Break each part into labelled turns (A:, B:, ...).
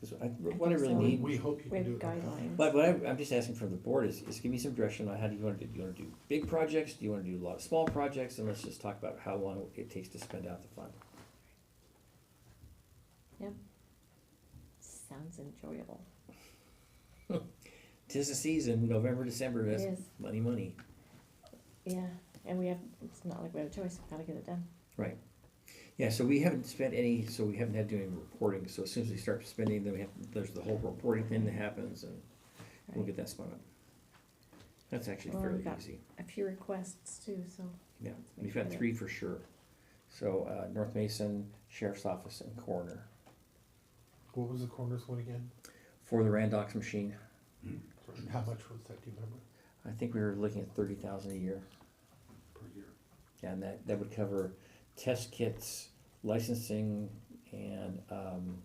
A: Because I, what I really
B: so.
A: need,
C: We hope you
B: We
C: can
B: have
C: do it. like that.
B: guidelines.
A: but what I, I'm just asking from the board is, is give me some direction on how do you wanna do, do you wanna do big projects, do you wanna do a lot of small projects, and let's just talk about how long it takes to spend out the fund.
B: Sounds enjoyable.
A: Tis the season, November, December,
B: It
A: that's
B: is,
A: money, money.
B: yeah, and we have, it's not like we have a choice, we've gotta get it done.
A: Yeah, so we haven't spent any, so we haven't had to do any reporting, so as soon as we start spending, then we have, there's the whole reporting thing that happens, and we'll
B: Right.
A: get that spun up. That's actually
B: Well, we've
A: fairly
B: got-
A: easy,
B: A few requests too, so.
A: yeah,
B: let's make
A: we've
B: sure
A: got
B: that-
A: three for sure. So, uh, North Mason, Sheriff's Office, and Coroner,
C: What was the coroner's one again?
A: for the Randox machine,
C: How much was that, do you remember,
A: I think we were looking at thirty thousand a year.
C: per year?
A: And that, that would cover test kits, licensing, and, um,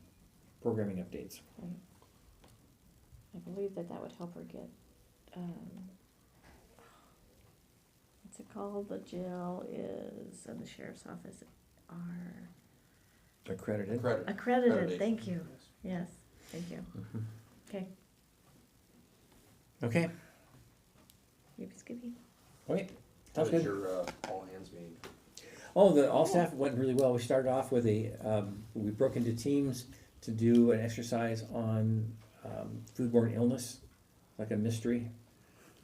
A: programming updates.
B: I believe that that would help her get, um, what's it called? The jail is, and the sheriff's office are
A: Accredited.
D: Credit.
B: accredited,
D: Accreditation,
B: thank you. Yes, thank you.
A: Mhm.
B: Okay,
A: Okay,
B: yippee skippy.
A: okay,
D: How
A: sounds good.
D: was your, uh, all hands meeting?
A: Oh, the all staff went really well. We started off with a, um, we broke into teams to do an exercise on, um, foodborne illness, like a mystery.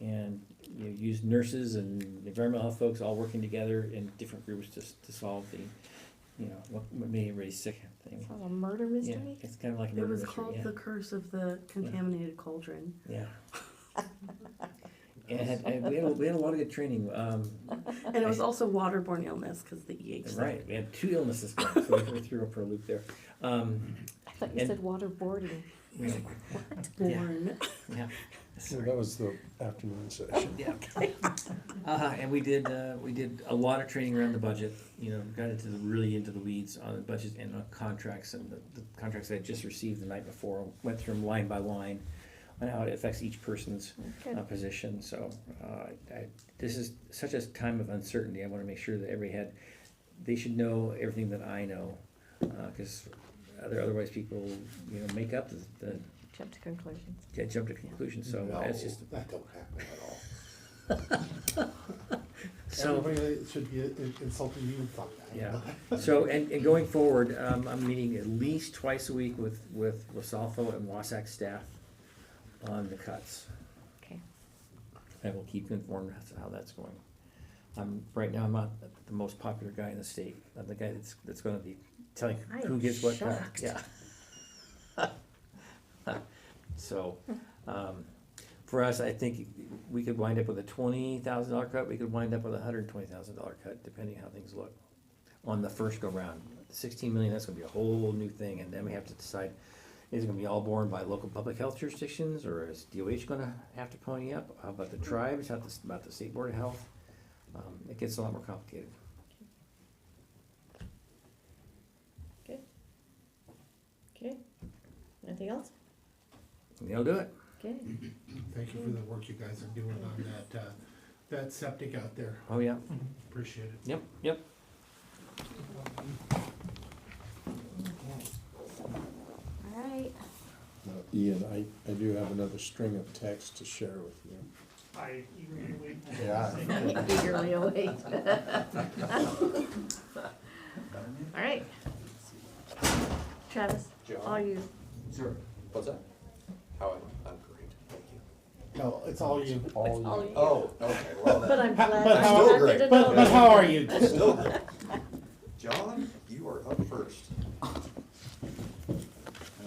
A: And you used nurses and environmental health folks all working together in different groups to, s- to solve the, you know, what, what made everybody sick thing.
B: Sounds a murder
A: Yeah,
B: mystery?
A: it's kind of like a
E: It
A: murder
E: was
A: mystery,
E: called
A: yeah.
E: The Curse of the Contaminated Cauldron.
A: Yeah. And had- and we had, a- we had a lot of good training, um,
E: And it was also waterborne illness because the EH. stuff.
A: right, we had two illnesses, going, so we threw up for a loop there. Um,
B: I thought you
A: And-
B: said waterboarding.
A: Yeah.
E: Born.
A: yeah.
F: So that was the afternoon session.
A: Yeah. Uh, and we did, uh, we did a lot of training around the budget, you know, got into the, really into the weeds on the budget and on contracts and the, the contracts I had just received the night before, went through them line by line on how it affects each person's
B: Good.
A: uh, position, so, uh, I, this is such a time of uncertainty, I wanna make sure that every head, they should know everything that I know, uh, cause other, otherwise people, you know, make up the, the,
B: Jump to conclusions.
A: they jump to conclusions, so
C: No,
A: that's just,
C: That don't happen at all.
A: so.
C: Everybody that should be in- insulting you thought that.
A: Yeah. So, and, and going forward, um, I'm meeting at least twice a week with, with Wasalfo and Wasack staff on the cuts.
B: Okay.
A: I will keep you informed as to how that's going. I'm, right now, I'm not the most popular guy in the state, I'm the guy that's, that's gonna be telling
B: I
A: who
B: am
A: gets what cut,
B: shocked.
A: yeah. So, um, for us, I think we could wind up with a twenty thousand dollar cut, we could wind up with a hundred and twenty thousand dollar cut, depending how things look on the first go round. Sixteen million, that's gonna be a whole new thing, and then we have to decide, is it gonna be all borne by local public health jurisdictions, or is DOH gonna have to pony up? How about the tribes, how this- about the state board of health? Um, it gets a lot more complicated.
B: Okay. Anything else?
A: And They'll do it.
B: Okay.
C: Thank you for the work you guys are doing on that, uh, that septic out there.
A: Oh, yeah.
C: Appreciate it.
A: Yep, yep.
B: All right.
F: Now, Ian, I, I do have another string of texts to share with you.
G: I eagerly wait.
F: Yeah.
B: Eagerly await. All right. Travis, all you.
D: Sure. What's that? How am I? I'm great, thank you.
C: No, it's all you.
B: All you.
D: Oh, okay, well
B: But
D: then,
B: I'm glad.
C: But
B: I'm
C: how-
B: glad we
D: great.
B: did
C: But,
B: all
C: but
B: that.
C: how are you?
D: still great. John, you are up first.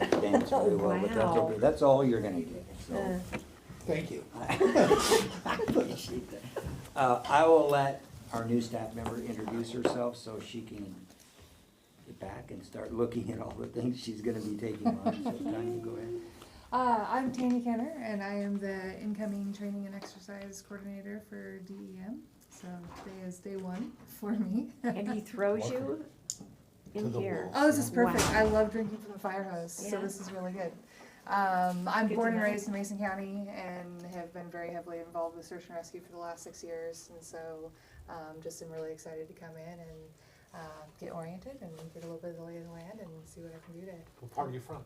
H: I dance very well, but that's
B: Wow.
H: okay. That's all you're gonna get, so.
B: Uh,
C: Thank you.
H: I appreciate that. Uh, I will let our new staff member introduce herself so she can get back and start looking at all the things she's gonna be taking on, so Tanya, go ahead.
I: Uh, I'm Tanya Kenner, and I am the incoming training and exercise coordinator for DEM. So today is day one for me.
B: And he throws you
C: To
B: in
C: the
B: here.
I: Oh, this is perfect.
B: Wow.
I: I love drinking from the fire hose, so
B: Yeah.
I: this is really good. Um, I'm
B: Good
I: born and
B: to know.
I: raised in Mason County and have been very heavily involved with search and rescue for the last six years. And so um, just am really excited to come in uh, and um, get oriented and get a little bit of the lay of the land and see what I can do to
C: What part are you from?